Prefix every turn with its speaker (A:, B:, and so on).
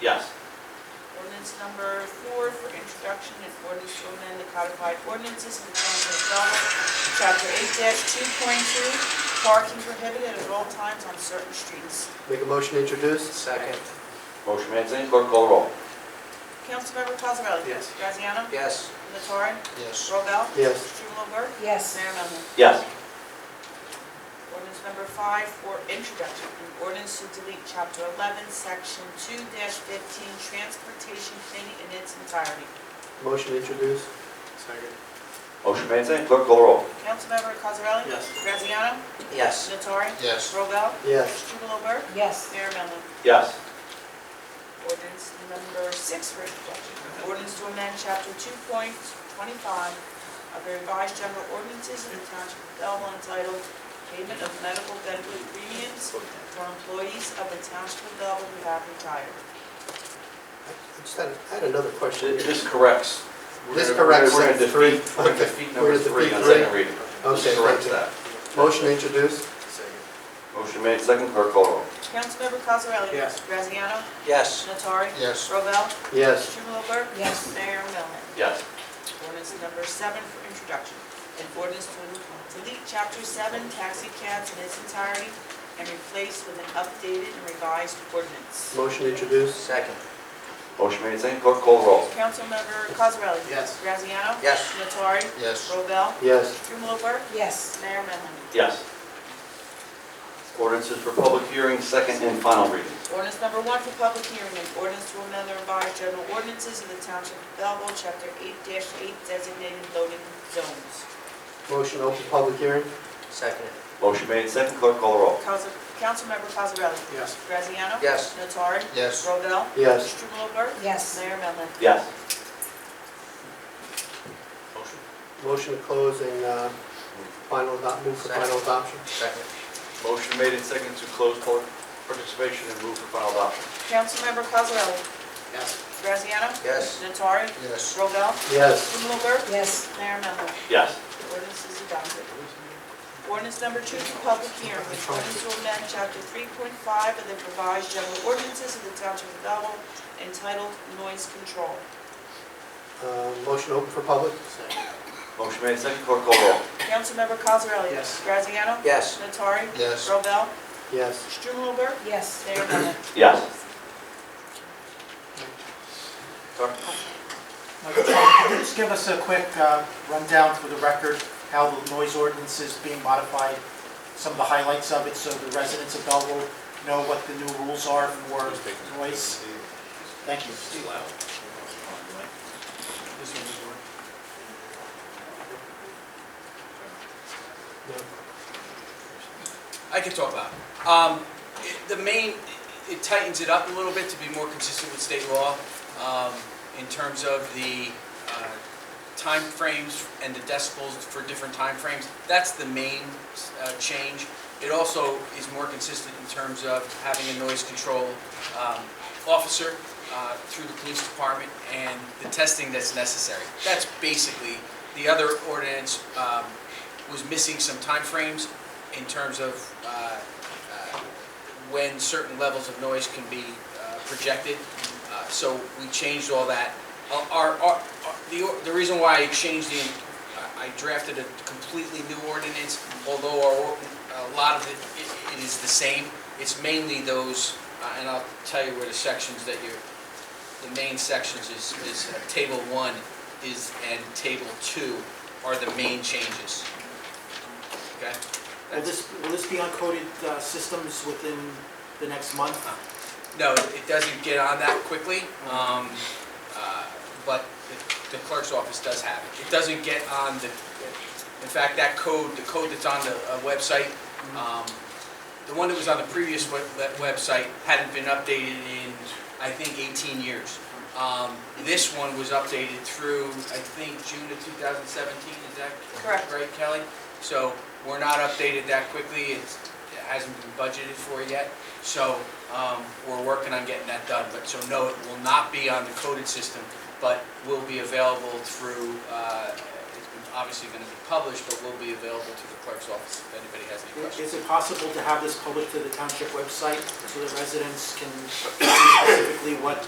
A: Yes.
B: Ordinance number four for introduction and ordinance to amend the codified ordinances of the town of Belleville, chapter eight two point two, parking prohibited at all times on certain streets.
C: Make a motion to introduce? Second.
A: Motion made, seconded, clerk call the roll.
B: Councilmember Cosarelli?
C: Yes.
B: Graziano?
D: Yes.
B: Nattari?
D: Yes.
B: Robel?
C: Yes.
B: Strumelberg?
E: yes,
B: Mayor Melman?
A: Yes.
B: Ordinance number five for introduction, an ordinance to delete chapter eleven, section two fifteen, transportation planning in its entirety.
C: Motion to introduce? Second.
A: Motion made, seconded, clerk call the roll.
B: Councilmember Cosarelli?
C: Yes.
B: Graziano?
D: Yes.
B: Nattari?
D: Yes.
B: Robel?
C: Yes.
B: Strumelberg?
E: yes,
B: Mayor Mellon.
A: Yes.
B: Ordinance number six for introduction. An Ordinance to amend chapter two point twenty-five of the revised general ordinances in the township of Belleville entitled Payment of Medical Benefit Premiums for Employees of the Township of Belleville Who Have Retired.
C: I just had, I had another question.
A: This corrects. We're
C: This
A: gonna- we're
C: corrects
A: gonna
C: it.
A: defeat-
C: Three.
A: We're going to defeat number
C: We're gonna
A: three on
C: defeat
A: second reading. This
C: Okay,
A: corrects
C: thank
A: that.
C: you. Motion to introduce?
A: Motion made, seconded, clerk call the roll.
B: Councilmember Cosarelli?
C: Yes.
B: Graziano?
D: Yes.
B: Natari,
D: Yes.
B: Robel?
C: Yes.
B: Strumelberg?
E: yes,
B: Mayor Mellon.
A: Yes.
B: Ordinance number seven for introduction, an ordinance to delete chapter seven taxi cabs in its entirety and replace with an updated and revised ordinance.
C: Motion to introduce?
D: Second.
A: Motion made, seconded, clerk call the roll.
B: Councilmember Cosarelli?
C: Yes.
B: Graziano?
D: Yes.
B: Nattari?
D: Yes.
B: Robel?
C: Yes.
B: Strumelberg?
E: yes,
B: Mayor Melham?
A: Yes. Ordinances for public hearing, second and final reading.
B: Ordinance number one for public hearing, an ordinance to amend the revised general ordinances of the township of Belleville, chapter eight eight designated loading zones.
C: Motion to open public hearing?
D: Second.
A: Motion made, seconded, clerk call the roll.
B: Council, Councilmember Cosarelli?
C: Yes.
B: Graziano?
D: Yes.
B: Nattari?
D: Yes.
B: Robel?
C: Yes.
B: Strumelberg?
E: yes,
B: Mayor Melham?
A: Yes.
C: Motion to close and, uh, final adopt, move for final adoption?
D: Second.
A: Motion made and seconded to close public participation and move for final adoption.
B: Councilmember Cosarelli?
C: Yes.
B: Graziano?
D: Yes.
B: Nattari?
D: Yes.
B: Robel?
C: Yes.
B: Strumelberg?
E: yes,
B: Mayor Melham?
A: Yes.
B: Ordinance is adopted. Ordinance number two for public hearing, an ordinance to amend chapter three point five of the revised general ordinances of the township of Belleville entitled Noise Control.
C: Uh, motion to open for public?
A: Motion made, seconded, clerk call the roll.
B: Councilmember Cosarelli?
C: Yes.
B: Graziano?
D: Yes.
B: Nattari?
D: Yes.
B: Robel?
C: Yes.
B: Strumelberg?
E: yes,
B: Mayor Melham?
A: Yes.
F: Just give us a quick uh, rundown for the record, how the noise ordinance is being modified, some of the highlights of it, so the residents of Belleville know what the new rules are for noise. Thank you.
G: I can talk about it. Um, it- The main, it tightens it up a little bit to be more consistent with state law um, in terms of the uh, time frames and the decibels for different time frames. That's the main uh, change. It also is more consistent in terms of having a noise control um, officer uh, through the police department and the testing that's necessary. That's basically, the other ordinance um, was missing some time frames in terms of uh, uh, when certain levels of noise can be uh, projected. Uh, So we changed all that. Our- Our, our- the, or- the reason why I changed the, uh, I drafted a completely new ordinance, although our, or- a lot of it, it- it is the same. It's mainly those, uh, and I'll tell you where the sections that you're, the main sections is, is uh, table one is, and table two are the main changes. Okay?
F: Will this, will this be uncoded uh, systems within the next month?
G: No, it doesn't get on that quickly, um, uh, but the- the clerk's office does have it. It doesn't get on the, in fact, that code, the code that's on the uh, website, um, the one that was on the previous web- that website hadn't been updated in, I think, 18 years. Um, This one was updated through, I think, June of 2017, is that
B: Correct.
G: right, Kelly? So we're not updated that quickly, It's- it hasn't been budgeted for yet. So um, we're working on getting that done, but so no, it will not be on the coded system, but will be available through, uh, obviously going to be published, but will be available to the clerk's office if anybody has any
F: I-
G: questions.
F: Is it possible to have this published to the township website so that residents can see specifically what